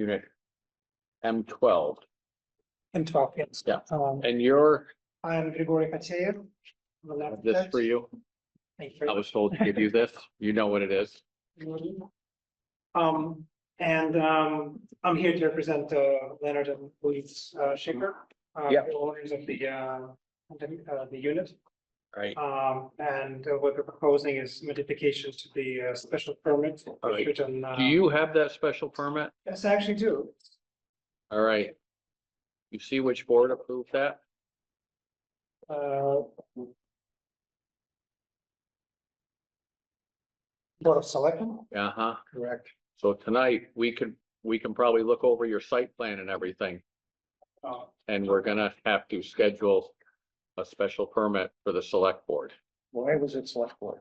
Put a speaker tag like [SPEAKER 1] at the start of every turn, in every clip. [SPEAKER 1] unit M twelve.
[SPEAKER 2] and twelve, yes.
[SPEAKER 1] Yeah.
[SPEAKER 2] Um,
[SPEAKER 1] And you're,
[SPEAKER 2] I am Grigori Kacheyev. the lab
[SPEAKER 1] this
[SPEAKER 2] tech.
[SPEAKER 1] for you,
[SPEAKER 2] Thank
[SPEAKER 1] I was told to give you this, you know what it is.
[SPEAKER 2] you. Um, and, um, I'm here to represent, uh, Leonard and Louise uh, Shaker. uh,
[SPEAKER 1] Yep.
[SPEAKER 2] The owners of the, uh, the, uh, the unit.
[SPEAKER 1] Right.
[SPEAKER 2] Um, and uh, what we're proposing is modifications to the, uh, special permit.
[SPEAKER 1] Alright.
[SPEAKER 2] issued on, uh,
[SPEAKER 1] Do you have that special permit?
[SPEAKER 2] Yes, I actually do.
[SPEAKER 1] All right. You see which board approved that?
[SPEAKER 2] Uh, Board of Selectmen?
[SPEAKER 1] Uh-huh.
[SPEAKER 2] Correct.
[SPEAKER 1] So tonight, we can, we can probably look over your site plan and everything,
[SPEAKER 2] Uh,
[SPEAKER 1] and we're gonna have to schedule a special permit for the select board.
[SPEAKER 3] Why was it select board?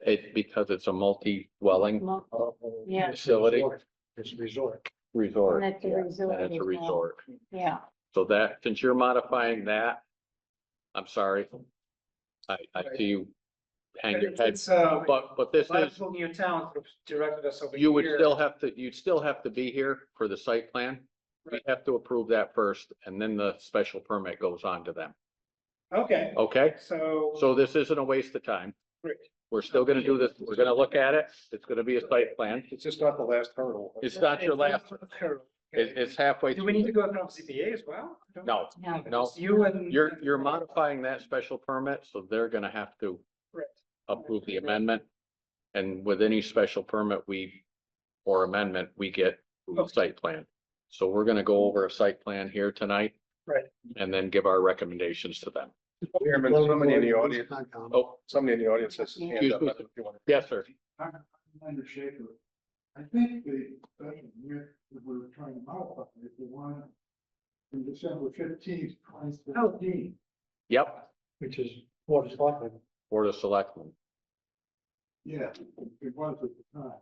[SPEAKER 1] It's because it's a multi-dwelling
[SPEAKER 4] Well,
[SPEAKER 3] Yeah.
[SPEAKER 4] Yeah.
[SPEAKER 1] Facility.
[SPEAKER 3] It's resort.
[SPEAKER 1] resort.
[SPEAKER 4] And it's a
[SPEAKER 1] Yeah,
[SPEAKER 4] resort
[SPEAKER 1] And it's a
[SPEAKER 4] as well.
[SPEAKER 1] resort.
[SPEAKER 4] Yeah,
[SPEAKER 1] So that, since you're modifying that, I'm sorry. I, I see you hang your
[SPEAKER 2] It's,
[SPEAKER 1] head,
[SPEAKER 2] it's, uh,
[SPEAKER 1] but, but this is,
[SPEAKER 2] Liverpool New Town sort of directed us over here.
[SPEAKER 1] you would still have to, you'd still have to be here for the site plan. We
[SPEAKER 2] Right.
[SPEAKER 1] have to approve that first, and then the special permit goes on to them,
[SPEAKER 2] Okay,
[SPEAKER 1] okay?
[SPEAKER 2] so.
[SPEAKER 1] So this isn't a waste of time.
[SPEAKER 2] Great.
[SPEAKER 1] We're still gonna do this, we're gonna look at it, it's gonna be a site plan,
[SPEAKER 3] It's just not the last hurdle.
[SPEAKER 1] it's not your last, it- it's halfway.
[SPEAKER 2] Do we need to
[SPEAKER 1] through.
[SPEAKER 2] go in front of ZBA as well?
[SPEAKER 1] No,
[SPEAKER 4] no,
[SPEAKER 1] no,
[SPEAKER 2] It's You and.
[SPEAKER 1] you're, you're modifying that special permit, so they're gonna have to
[SPEAKER 2] Right.
[SPEAKER 1] approve the amendment. And with any special permit we, or amendment, we get a
[SPEAKER 2] Okay.
[SPEAKER 1] site plan. So we're gonna go over a site plan here tonight.
[SPEAKER 2] Right.
[SPEAKER 1] And then give our recommendations to them.
[SPEAKER 3] Chairman, somebody in the audience,
[SPEAKER 1] Oh,
[SPEAKER 3] somebody in the audience has. his hand up.
[SPEAKER 1] Excuse yes, sir.
[SPEAKER 5] Commander Schaefer, I think the discussion here that we're trying to modify is the one from December fifteenth, twenty seventeen.
[SPEAKER 1] Yep,
[SPEAKER 2] Which is Board of Selectmen.
[SPEAKER 1] Board of Selectmen.
[SPEAKER 5] Yeah, it was at the time.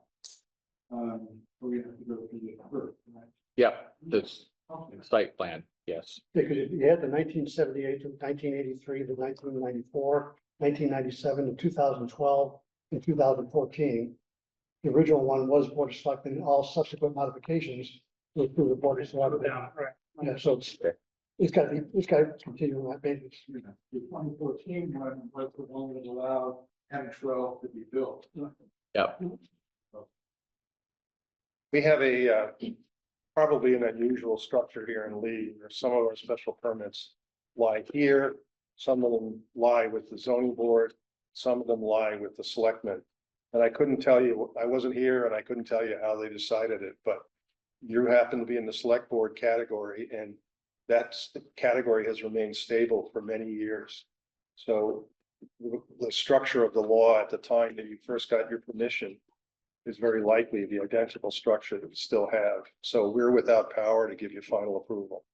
[SPEAKER 5] Um, so we have to go to the first, right?
[SPEAKER 1] Yep, this
[SPEAKER 5] Okay.
[SPEAKER 1] site plan, yes.
[SPEAKER 6] Because you had the nineteen seventy-eight, nineteen eighty-three, the nineteen ninety-four, nineteen ninety-seven, and two thousand twelve, and two thousand fourteen. The original one was Board of Selectmen, and all subsequent modifications were through the Board of Selectmen.
[SPEAKER 2] Down, right.
[SPEAKER 6] Yeah, so it's, it's gotta be, it's gotta continue on that basis.
[SPEAKER 5] You know, The twenty fourteen one was the one that allowed M twelve to be built.
[SPEAKER 3] We have a, uh, probably an unusual structure here in Lee, where some of our special permits lie here. Some of them lie with the zoning board, some of them lie with the selectmen. And I couldn't tell you, I wasn't here and I couldn't tell you how they decided it, but you happen to be in the select board category and that's, the category has remained stable for many years. So the, the structure of the law at the time that you first got your permission is very likely the identical structure that we still have. So we're without power to give you final approval.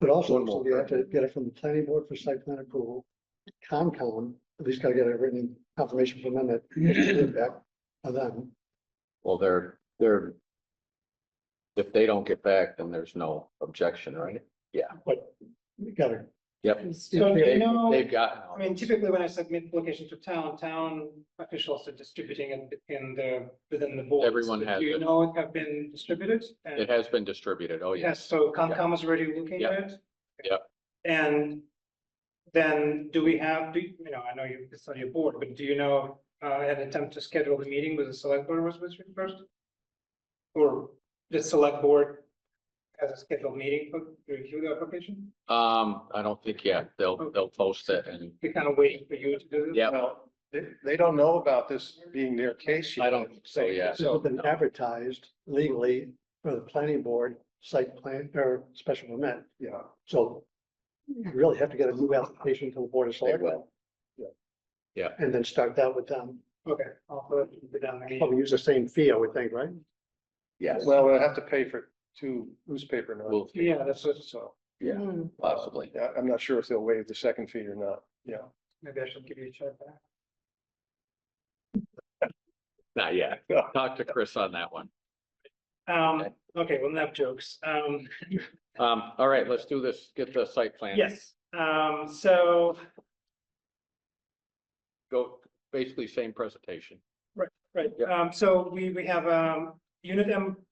[SPEAKER 6] But also,
[SPEAKER 3] One more.
[SPEAKER 6] you have to get it from the planning board for site plan approval, Comcom, at least gotta get a written confirmation from them that it's back on them.
[SPEAKER 1] Well, they're, they're. If they don't get back, then there's no objection, right?
[SPEAKER 6] You gotta,
[SPEAKER 1] Yep.
[SPEAKER 2] So do you
[SPEAKER 1] They've,
[SPEAKER 2] know,
[SPEAKER 1] they've
[SPEAKER 2] I
[SPEAKER 1] gotten,
[SPEAKER 2] mean, typically when I submit application to town, town officials are distributing it in the, within the board.
[SPEAKER 1] Everyone has
[SPEAKER 2] Do you
[SPEAKER 1] it.
[SPEAKER 2] know it have been distributed? And-
[SPEAKER 1] it has been distributed, oh, yes.
[SPEAKER 2] Yes, so Concom is already looking
[SPEAKER 1] Yeah.
[SPEAKER 2] at it?
[SPEAKER 1] Yeah.
[SPEAKER 2] And then do we have, do, you you know, I know you, it's on your board, but do you know, uh, an attempt to schedule the meeting with the select board was was first? Or the select board has a scheduled meeting for to review the application?
[SPEAKER 1] Um, I don't think yet.
[SPEAKER 2] Oh.
[SPEAKER 1] They'll, they'll post it and
[SPEAKER 2] We're kind of waiting for you to do this?
[SPEAKER 1] Yeah.
[SPEAKER 3] Well, they, they don't know about this being their case. yet.
[SPEAKER 1] I don't think so, yeah.
[SPEAKER 6] So it's been advertised legally for the planning board, site plan or special permit.
[SPEAKER 3] Yeah,
[SPEAKER 6] So you really have to get a new application to the board of selectmen.
[SPEAKER 3] Yeah.
[SPEAKER 1] Yeah.
[SPEAKER 6] And then start that with them.
[SPEAKER 2] Okay, I'll put it down the meeting.
[SPEAKER 6] Probably use the same fee, I would think, right?
[SPEAKER 1] yes,
[SPEAKER 3] well, we'll have to pay for two newspaper notes.
[SPEAKER 1] we'll,
[SPEAKER 2] Yeah, that's what,
[SPEAKER 3] So,
[SPEAKER 1] yeah,
[SPEAKER 4] Hmm.
[SPEAKER 1] possibly.
[SPEAKER 3] yeah, I'm not sure if they'll waive the second fee or not. Yeah.
[SPEAKER 2] maybe I should give you a check back.
[SPEAKER 1] Not yet. Talk to Chris on that one.
[SPEAKER 2] Um, okay, well, enough jokes. Um,
[SPEAKER 1] Um, all right, let's do this. Get the site plan.
[SPEAKER 2] yes, um, so
[SPEAKER 1] Go, basically same presentation.
[SPEAKER 2] Right,
[SPEAKER 1] Yeah.
[SPEAKER 2] um, so we, we have, um, unit M